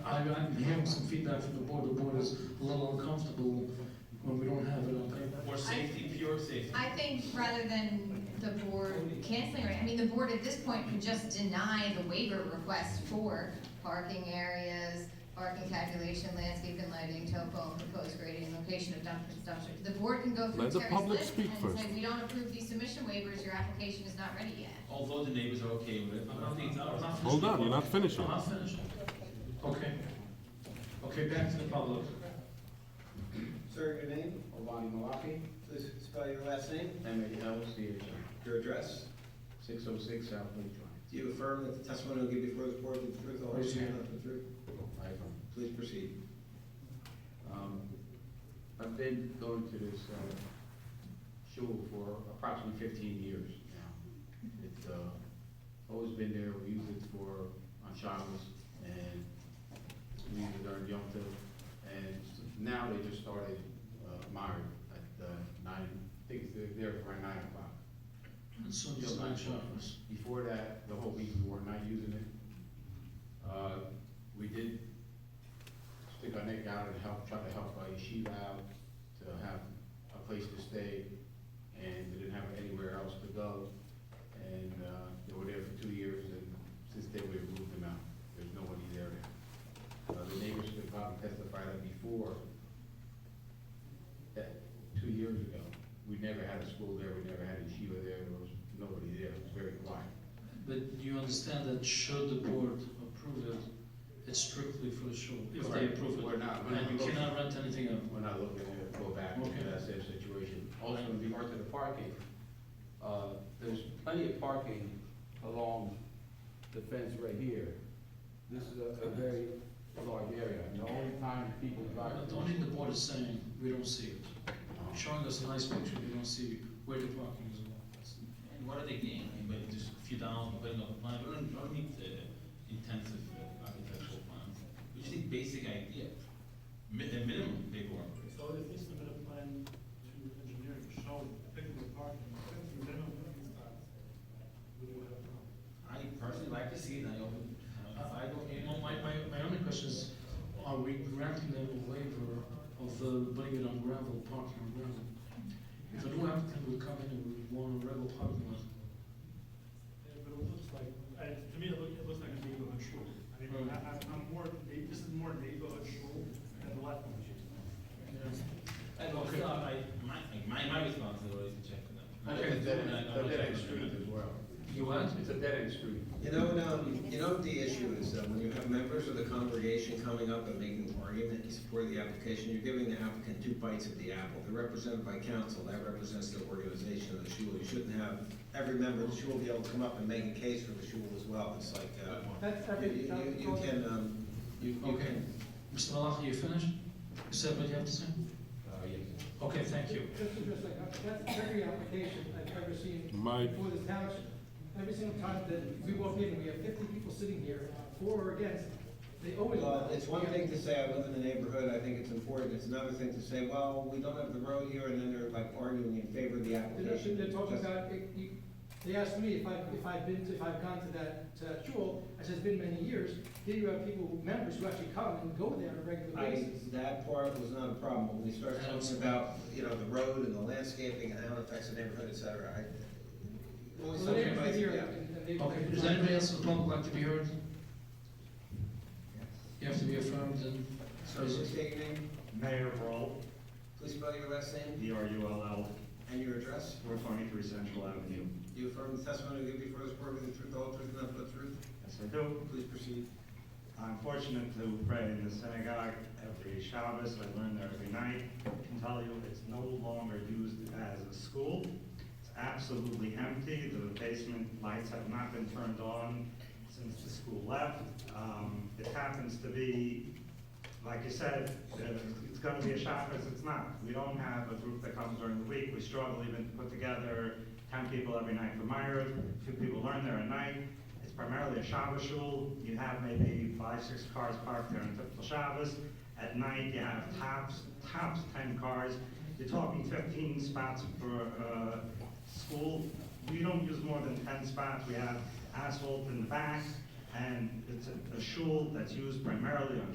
I, I'm hearing some feedback from the board, the board is a little uncomfortable when we don't have it on paper. Or safety, pure safety. I think rather than the board canceling, it, I mean, the board at this point can just deny the waiver request for parking areas, parking calculation, landscape and lighting, topo, proposed grading, location of dump and dumpster. The board can go through Let the Terry's public list speak and say, first. we don't approve these submission waivers, your application is not ready yet. Although the neighbors are okay with it. I'm not- I'm not finishing. Hold on, you're not finishing. I'm not finished. Okay. Okay, back to the public. Sir, your name? Obani Malapi. Please spell your last name. M-A-L-C-H-I, Your address. 606 South Lee Drive. Do you affirm that the testimony will give before the board is the truth, the whole truth, and nothing but the truth? I do. Please proceed. Um, I've been going to this uh, shul for approximately 15 years now. It's uh, always been there, we use it for, on Shabbos, and we use it during Yom Tov. And now they just started Myri at uh, nine, I think it's there for around nine o'clock. So Yeah, it's my not shoppers. Before that, the whole week, we were not using it. Uh, We did stick our neck out and help, try to help our yeshiva out to have a place to stay, and they didn't have anywhere else to go. And uh, they were there for two years, and since then, we moved them out. There's nobody there now. Uh, The neighbors could probably testify that before, that two years ago, we never had a school there, we never had a yeshiva there, there was nobody there, it was very quiet. But you understand that should the board approve it, it's strictly for the show, if they Correct. approve We're it. not- we're not And you looking- cannot rent anything out. We're not looking to go back Okay. into that same situation. Also, with regard to the parking, uh, there's plenty of parking along the fence right here. This is a a very large area, and the only time people I drive. don't think the board is saying, we don't see it. Showing us a nice picture, we don't see where the parking is. And what are they gaining by just a few dollars, by not money? We don't, we don't need uh, intensive uh, architectural plans. We just need basic idea, mi- a minimum paperwork. So if they submit a plan to engineering showing particular parking, if you minimum parking spots, we would have a problem. I personally like to see it, I open, uh, I I don't, don't, well, my, my, my only question is, are we granting them a waiver of uh, putting it on gravel, parking on gravel? If a new applicant would come in and would want a gravel parking lot, Yeah, But it looks like, I- to me, it looks, it looks like a neighborhood shul. I mean, I, I'm- I'm more, this is more neighborhood shul than the lot line I don't, Okay. I, my, my, my responsibility is to check for them. It's a dead end- I- I- it's I- a dead end street as well. you what? It's a dead end street. You know, um, you know what the issue is, uh, when you have members of the congregation coming up and making an argument in support of the application, you're giving the applicant two bites of the apple. They're represented by council, that represents the organization of the shul. You shouldn't have every member of the shul be able to come up and make a case for the shul as well. It's like, uh, That's you, you- you can, um, you, you Okay. can Mr. Malachi, you finished? You said what you have to say? Uh, yes. Okay, thank you. Just interesting, that's every application I've ever seen My- for this township. Every single time that we walk in, we have fifty people sitting here, for or against, they always. Well, uh, it's one thing to say, I live in the neighborhood, I think it's important, it's another thing to say, well, we don't have the road here, and then they're like arguing in favor of the They're, application. they're talking about, it, you- they asked me if I, if I've been to, if I've gone to that, to that shul, I said, it's been many years. Here you have people, members who actually come and go there on a regular I, basis. that part was not a problem, when we start talking about, you know, the road and the landscaping and how it affects the neighborhood, et cetera, I. So only the neighbors something- are here, yeah. and- and they- Okay, does anybody else in the public like to be heard? You have to be affirmed and, So, just state your name, Mayor Roll, please spell your last name, D-R-U-L-L, and your address, 423 Central Avenue. do you affirm the testimony you give before this board with the truth, the whole truth, and nothing but the truth? Yes, I do. Please proceed. I'm fortunate to pray in the synagogue every Shabbos, I learn there every night. I can tell you, it's no longer used as a school. It's absolutely empty, the basement lights have not been turned on since the school left. Um, It happens to be, like you said, uh, it's gonna be a Shabbos, it's not. We don't have a group that comes during the week, we struggle even to put together ten people every night for Myers, two people learn there a night. It's primarily a Shabbos shul. You have maybe five, six cars parked there on typical Shabbos. At night, you have tops, tops 10 cars. You're talking 15 spots per uh, school. We don't use more than 10 spots. We have asphalt in the back, and it's a a shul that's used primarily on